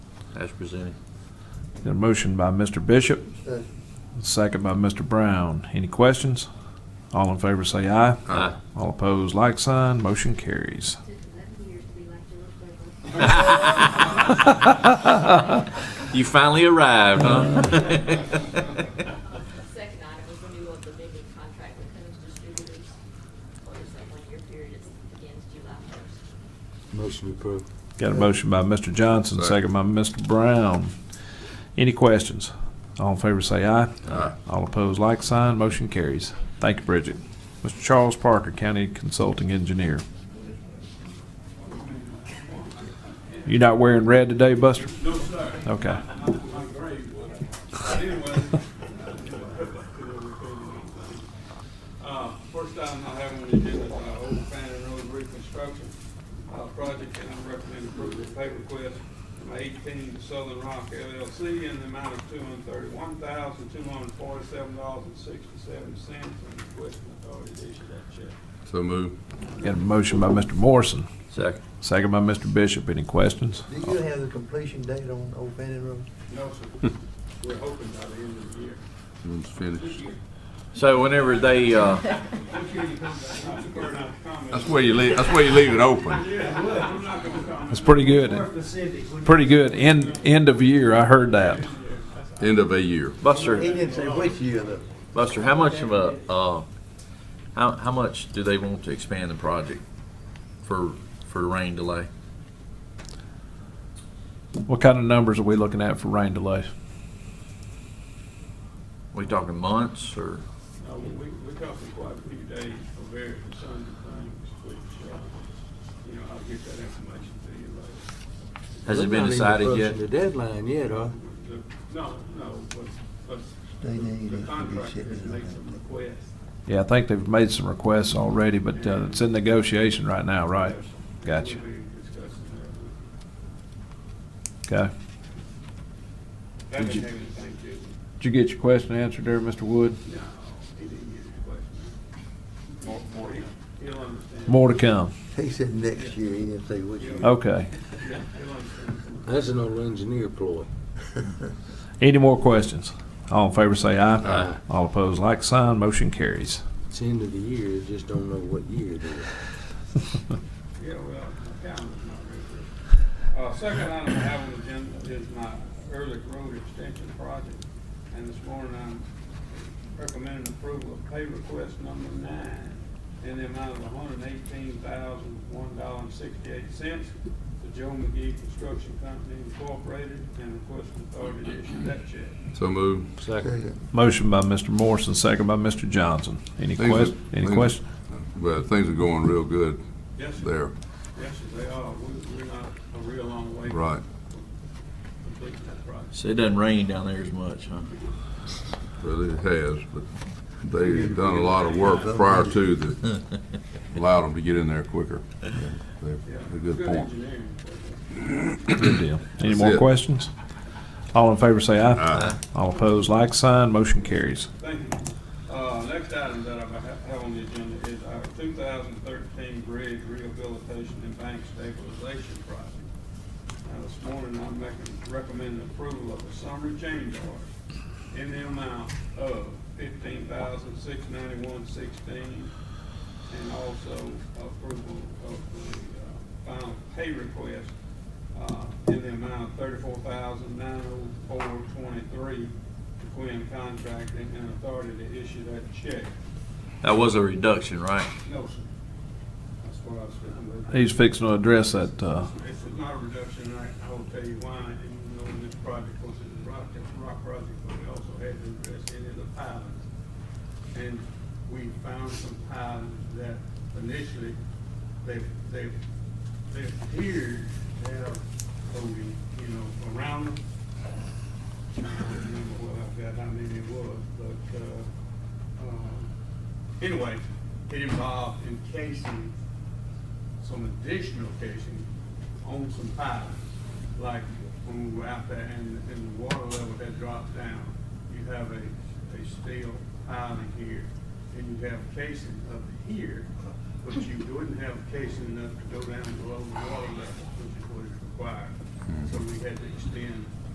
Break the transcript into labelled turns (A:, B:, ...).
A: as presented.
B: Got a motion by Mr. Bishop,
C: Second.
B: second by Mr. Brown. Any questions? All in favor say aye.
A: Aye.
B: All opposed, like sign. Motion carries.
A: You finally arrived, huh?
D: Second item was renewal of the vending contract with Coons Distributors for that one-year period, it begins July first.
C: Motion approved.
B: Got a motion by Mr. Johnson, second by Mr. Brown. Any questions? All in favor say aye.
A: Aye.
B: All opposed, like sign. Motion carries. Thank you, Bridget. Mr. Charles Parker, County Consulting Engineer. You not wearing red today, Buster?
E: No, sir.
B: Okay.
E: My grave was. But anyway. Uh, First item I have on the agenda is uh, Old Fannin Road reconstruction uh, project, and I recommend approval of pay request from eighteen Southern Rock LLC in the amount of two hundred thirty-one thousand, two hundred forty-seven dollars and sixty-seven cents, and request the authority to issue that check.
F: So move.
B: Got a motion by Mr. Morrison,
A: Second.
B: second by Mr. Bishop. Any questions?
C: Do
A: Oh.
C: you have the completion date on Old Fannin Road?
E: No, sir, we're hoping by the end of the year.
F: One's finished.
A: So whenever they, uh,
E: This year you come back, I'm prepared not to comment.
F: That's where you leave, that's where you leave it open.
E: Yeah, well, I'm not gonna comment.
B: That's pretty good. Pretty good. End, end of year, I heard that.
F: End of a year.
C: He
A: Buster,
C: didn't say which year though.
A: Buster, how much of a, uh, how, how much do they want to expand the project for, for rain delay?
B: What kind of numbers are we looking at for rain delays?
A: We talking months or?
E: No, we, we're talking quite a few days for very concerning things, which, uh, you know, I'll get that information to you later.
A: Has it been decided yet?
C: The deadline yet, huh?
E: The- No, no, but, but
C: They need
E: the
C: it to be
E: contractor has
C: shipped in
E: made
C: on
E: some
C: that.
E: requests.
B: Yeah, I think they've made some requests already, but uh, it's in negotiation right now, right? Gotcha.
E: We'll be discussing that.
B: Okay.
E: That
B: Did you-
E: didn't have anything to do with
B: Did you get your question answered there, Mr. Wood?
E: No, he didn't get his question. More, more. He'll understand.
B: More to come.
C: He said next year, he didn't say which year.
A: Oh.
B: Okay.
E: Yeah, he'll understand.
G: That's an old engineer ploy.
B: Any more questions? All in favor say aye.
F: Aye.
B: All opposed, like sign. Motion carries.
G: It's the end of the year, just don't know what year it is.
E: Yeah, well, the calendar's not real good. Uh, second item I have on the agenda is my Ehrlich Road Extension Project. And this morning I'm recommending approval of pay request number nine in the amount of hundred and eighteen thousand, one dollar and sixty-eight cents to Joe McGee Construction Company Incorporated and request authority to issue that check.
F: So move.
G: Second.
B: Motion by Mr. Morrison, second by Mr. Johnson. Any
F: Things are-
B: quest, any
F: things-
B: question?
F: Well, things are going real good
E: Yes, sir.
F: there.
E: Yes, sir, they are. We- We're not a real long way from
F: Right.
E: completing that project.
A: So it doesn't rain down there as much, huh?
F: Well, it has, but they've done a lot of work prior to that allowed them to get in there quicker. They're
E: Yeah,
F: a good point.
E: engineering.
B: Good deal. Any
F: That's
B: more
F: it.
B: questions? All in favor say aye.
F: Aye.
B: All opposed, like sign. Motion carries.
E: Thank you. Uh, next item that I ha- have on the agenda is our two thousand thirteen bridge rehabilitation and bank stabilization project. Now, this morning, I'm making, recommending approval of a summary change order in the amount of fifteen thousand six ninety-one sixteen, and also approval of the, uh, final pay request, uh, in the amount of thirty-four thousand nine oh four twenty-three to Quinn Contracting and authority to issue that check.
A: That was a reduction, right?
E: No, sir. That's what I was going with.
B: He's fixing to address that, uh,
E: This is not a reduction, I, I will tell you why, and you know, this project was a rock, a rock project, but we also had to address any of the pilings. And we found some pilings that initially, they, they, they appeared to have coating, you know, around them. I don't remember what I've got, how many it was, but, uh, um, anyway, it involved encasing some additional casing on some pipes, like when we were out there and, and the water level had dropped down, you have a, a steel piling here, and you have casing up here, but you wouldn't have casing enough to go down below the water level, which is what is required. so we had to extend